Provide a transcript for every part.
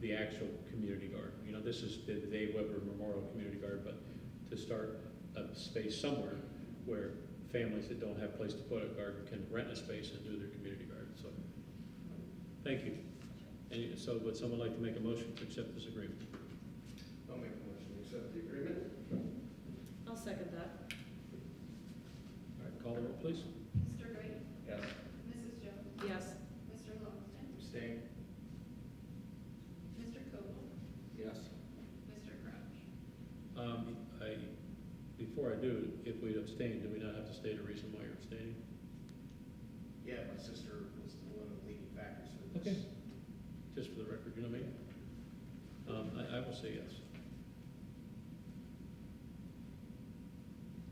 the actual community garden. You know, this has been the Dave Weber Memorial Community Garden, but to start a space somewhere where families that don't have place to put a garden can rent a space and do their community garden, so. Thank you. And so would someone like to make a motion to accept this agreement? I'll make a motion to accept the agreement. I'll second that. All right, call the roll, please. Mr. Wright? Yes. Mrs. Jones? Yes. Mr. Longston? Abstain. Mr. Coble? Yes. Mr. Crouch? Um, I, before I do, if we abstain, do we not have to state a reason why you're abstaining? Yeah, my sister was the one of the leading factors for this. Okay. Just for the record, you know me? Um, I, I will say yes.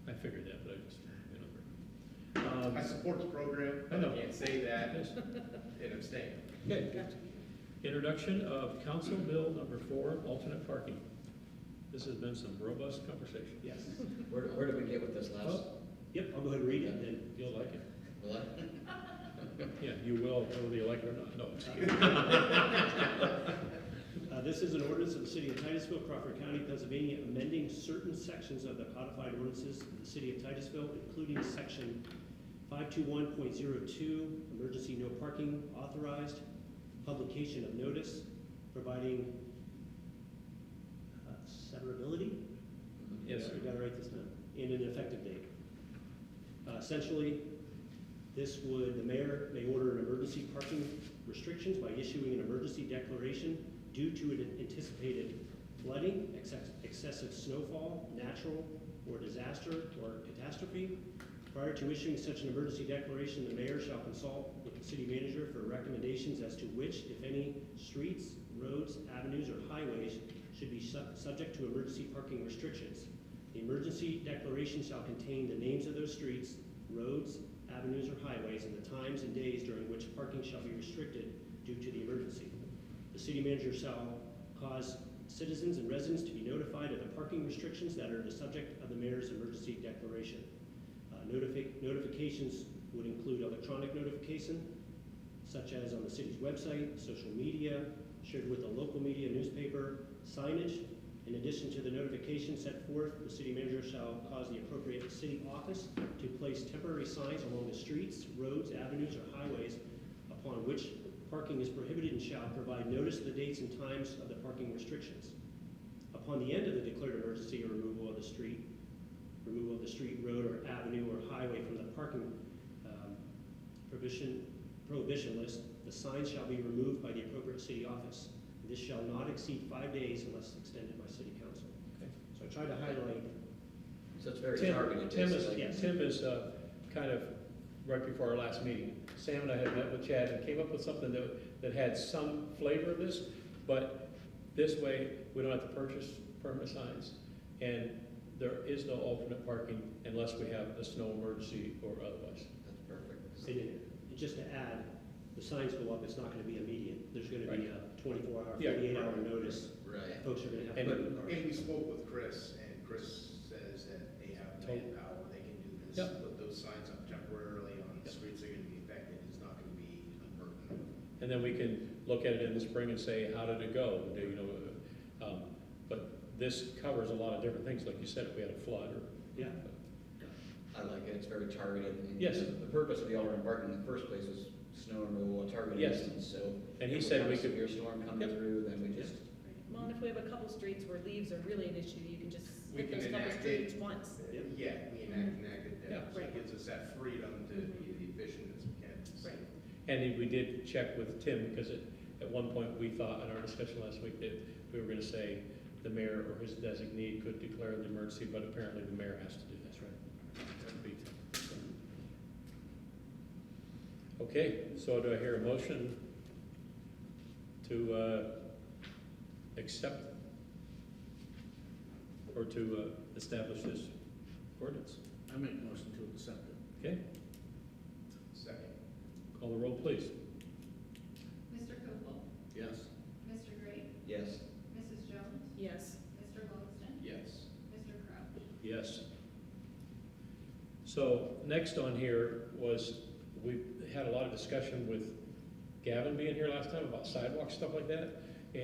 I figured that, but I just, you know. I Um, support the program, but I know. I can't say that yes. and abstain. Okay. Introduction of Council Bill Number Four, Alternate Parking. This has been some robust conversation. Yes. Where, where did we get with this last? Yep, I'll go ahead and read it, and then You'll like it. Will I? Yeah, you will, whether you like it or not. No, it's kidding. Uh, This is an ordinance of the city of Titusville, Crawford County, Pennsylvania, amending certain sections of the codified ordinances of the city of Titusville, including section 521.02, emergency no parking authorized, publication of notice, providing uh, severability? Yes, sir. We gotta write this down, and an effective date. Uh, Essentially, this would, the mayor may order an emergency parking restrictions by issuing an emergency declaration due to an anticipated flooding, exce- excessive snowfall, natural or disaster or catastrophe. Prior to issuing such an emergency declaration, the mayor shall consult with the city manager for recommendations as to which, if any, streets, roads, avenues, or highways should be su- subject to emergency parking restrictions. The emergency declaration shall contain the names of those streets, roads, avenues, or highways, and the times and days during which parking shall be restricted due to the emergency. The city manager shall cause citizens and residents to be notified of the parking restrictions that are the subject of the mayor's emergency declaration. Uh, notifi- Notifications would include electronic notification, such as on the city's website, social media, shared with the local media, newspaper, signage. In addition to the notification set forth, the city manager shall cause the appropriate city office to place temporary signs along the streets, roads, avenues, or highways upon which parking is prohibited and shall provide notice of the dates and times of the parking restrictions. Upon the end of the declared emergency or removal of the street, removal of the street, road, or avenue or highway from the parking um, prohibition, prohibition list, the sign shall be removed by the appropriate city office. This shall not exceed five days unless extended by city council. Okay. So I tried to highlight, So it's very Tim- targeted, Tim is, basically. yeah. Tim is, uh, kind of, right before our last meeting, Sam and I had met with Chad and came up with something that, that had some flavor of this, but this way, we don't have to purchase permanent signs, and there is no alternate parking unless we have a snow emergency or otherwise. That's perfect. and it- and just to add, the signs go up, it's not gonna be immediate. There's gonna be a twenty-four hour, Yeah. forty-eight hour notice. Right. Folks are gonna have to. And- put in the cars. And we spoke with Chris, and Chris says that they have Totally. manpower, they can do this. Yep. Put those signs up temporarily on the Yep. streets that are gonna be affected, it's not gonna be a burden. And then we can look at it in the spring and say, how did it go? Do you know, uh, um, but this covers a lot of different things, like you said, if we had a flood or. Yeah. I like it, it's very targeted. and Yes. the- The purpose of the Alderman Barton in the first place was snow removal, a targeted Yes. instance, so. And he if said have we a could- Severe storm coming Yep. through, then we just, Well, and if we have a couple streets where leaves are really an issue, you can just We skip can those couple enact it. streets once. Yep. Yeah, we enact, enacted Yeah. that, so Right. it gives us that freedom to be as efficient as we can. Right. And we did check with Tim, because at, at one point, we thought in our discussion last week that we were gonna say the mayor or his designee could declare an emergency, but apparently the mayor has to do that. That's right. That would be- Okay, so do I hear a motion to, uh, accept or to, uh, establish this ordinance? I make a motion to accept it. Okay, Second. call the roll, please. Mr. Coble? Yes. Mr. Wright? yes. Mrs. Jones? Yes. Mr. Longston? Yes. Mr. Crouch? Yes. So next on here was, we had a lot of discussion with Gavin being here last time about sidewalk stuff like that.